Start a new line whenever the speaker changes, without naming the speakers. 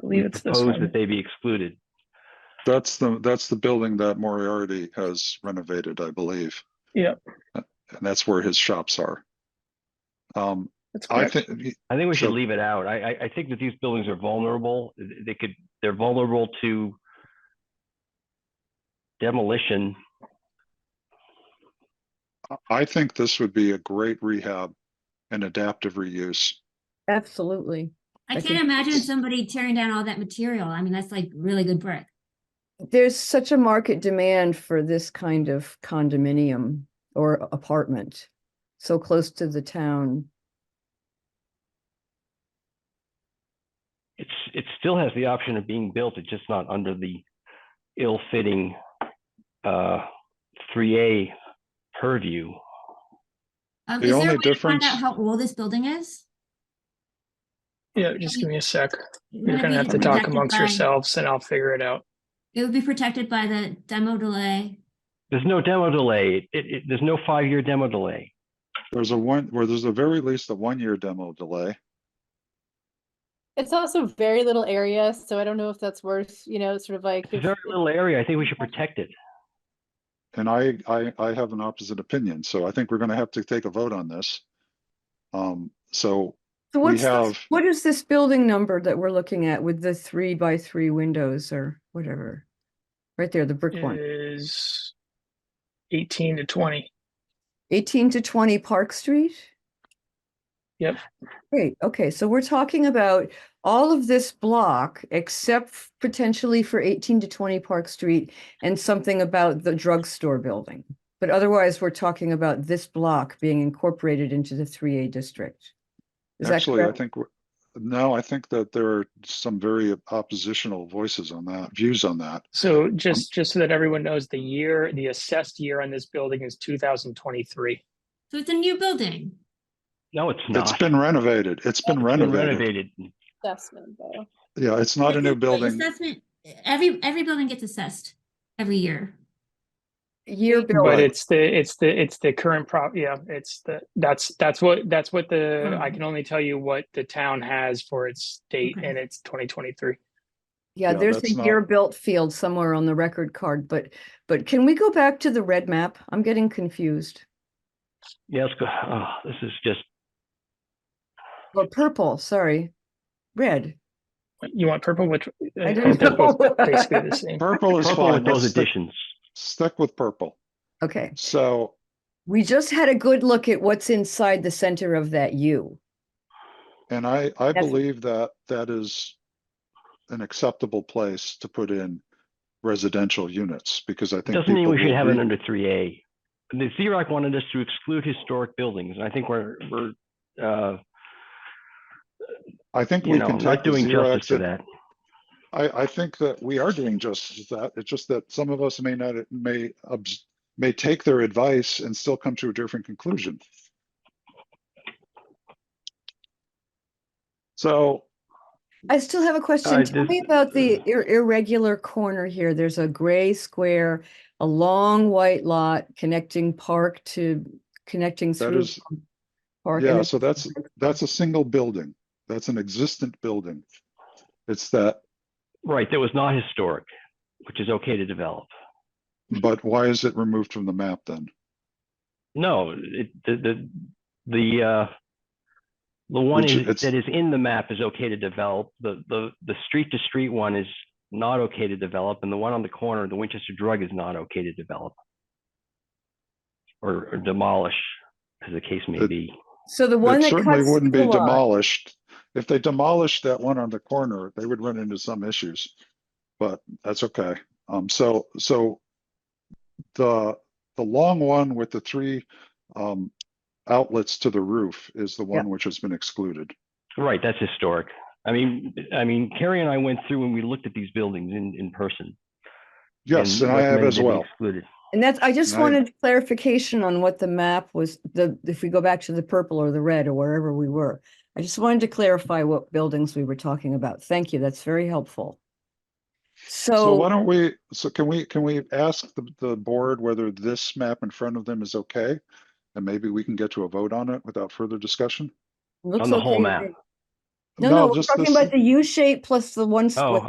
believe it's this
propose that
one.
they be excluded.
That's the, that's the building that Moriarty has renovated, I believe.
Yep.
Uh, And that's where his shops are. Um,
That's
I
correct.
think,
I think we should
So-
leave it out. I, I, I think that these buildings are vulnerable. Th- They could, they're vulnerable to demolition.
I think this would be a great rehab and adaptive reuse.
Absolutely. I
I
think-
can't imagine somebody tearing down all that material. I mean, that's like really good brick.
There's such a market demand for this kind of condominium or apartment, so close to the town.
It's, it still has the option of being built. It's just not under the ill-fitting, uh, three A purview.
Um,
The
is there a
only
way to find
difference-
out how old this building is?
Yeah, just give me a sec.
Would
You're
it
gonna
be
have to talk
protected
amongst
by-
yourselves and I'll figure it out.
It would be protected by the demo delay.
There's no demo delay. It, it, there's no five-year demo delay.
There's a one, where there's a very least a one-year demo delay.
It's also very little area, so I don't know if that's worth, you know, sort of like.
It's a
if-
very little area. I think we should protect it.
And I, I, I have an opposite opinion, so I think we're gonna have to take a vote on this. Um, so
So
We
what's, this-
have-
what is this building number that we're looking at with the three by three windows or whatever? Right there, the brick one,
Is eighteen to twenty.
eighteen to twenty Park Street?
Yep.
Great, okay, so we're talking about all of this block except f- potentially for eighteen to twenty Park Street and something about the drugstore building. But otherwise, we're talking about this block being incorporated into the three A district. Is that
actually, I
correct?
think, we're- no, I think that there are some very oppositional voices on that, views on that.
So just, just so that everyone knows, the year, the assessed year on this building is two thousand twenty-three.
So it's a new building.
No, it's
It's
not.
been renovated. It's been renovated.
Renovated.
Assessment, though.
Yeah, it's not a
This
new
is- the
building.
Assessment, every, every building gets assessed every year.
Year
But
building,
it's the, it's the, it's the current prop, yeah, it's the, that's, that's what, that's what the, I
Mhm.
can only tell you what the town has for its date
Okay.
and it's twenty twenty-three.
yeah,
yeah,
there's
that's
a
not-
year built field somewhere on the record card, but, but can we go back to the red map? I'm getting confused.
Yeah, let's go. Oh, this is just,
Or purple, sorry, red.
You want purple, which?
I
uh,
don't
purple's
know.
Basically the same.
Purple is
purple
fine.
with those
Let's stick,
additions.
stick with purple.
Okay,
So,
we just had a good look at what's inside the center of that U.
and I, I
That's-
believe that that is an acceptable place to put in residential units, because I think.
Doesn't mean
people
we should
will
have it
read-
under three A. The ZROC wanted us to exclude historic buildings, and I think we're, we're, uh,
I think
you
we
know,
can
not
take the
doing justice
Xerox.
to
and-
that.
I, I think that we are doing justice to that. It's just that some of us may not, may, obs- may take their advice and still come to a different conclusion. So
I still have a question. Tell
this-
me about the ir- irregular corner here. There's a gray square, a long white lot connecting park to, connecting
That
through.
is-
from park. and
Yeah,
then-
so that's, that's a single building. That's an existent building. It's that,
Right, that was not historic, which is okay to develop.
but why is it removed from the map then?
No, it, the, the, the, uh, the one
Which
is-
it's-
that is in the map is okay to develop. The, the, the street to street one is not okay to develop, and the one on the corner, the Winchester Drug is not okay to develop. Or or demolish, as the case may
It-
be.
So the one
It
that
certainly
cuts
wouldn't
through
be
the lot,
demolished. If they demolished that one on the corner, they would run into some issues. But that's okay. Um, so, so the, the long one with the three, um, outlets to the roof is the one which has been excluded.
Right, that's historic. I mean, I mean, Carrie and I went through and we looked at these buildings in, in person.
Yes, and I have
recommended
as
they be
well.
Excluded.
and that's, I just
Right.
wanted clarification on what the map was, the, if we go back to the purple or the red or wherever we were. I just wanted to clarify what buildings we were talking about. Thank you. That's very helpful.
So why
So,
don't we, so can we, can we ask the, the board whether this map in front of them is okay? And maybe we can get to a vote on it without further discussion?
looks
on the whole
okay to
map.
me. No, no,
No,
we're
just
talking
this-
about the U shape plus the one
Oh,
square.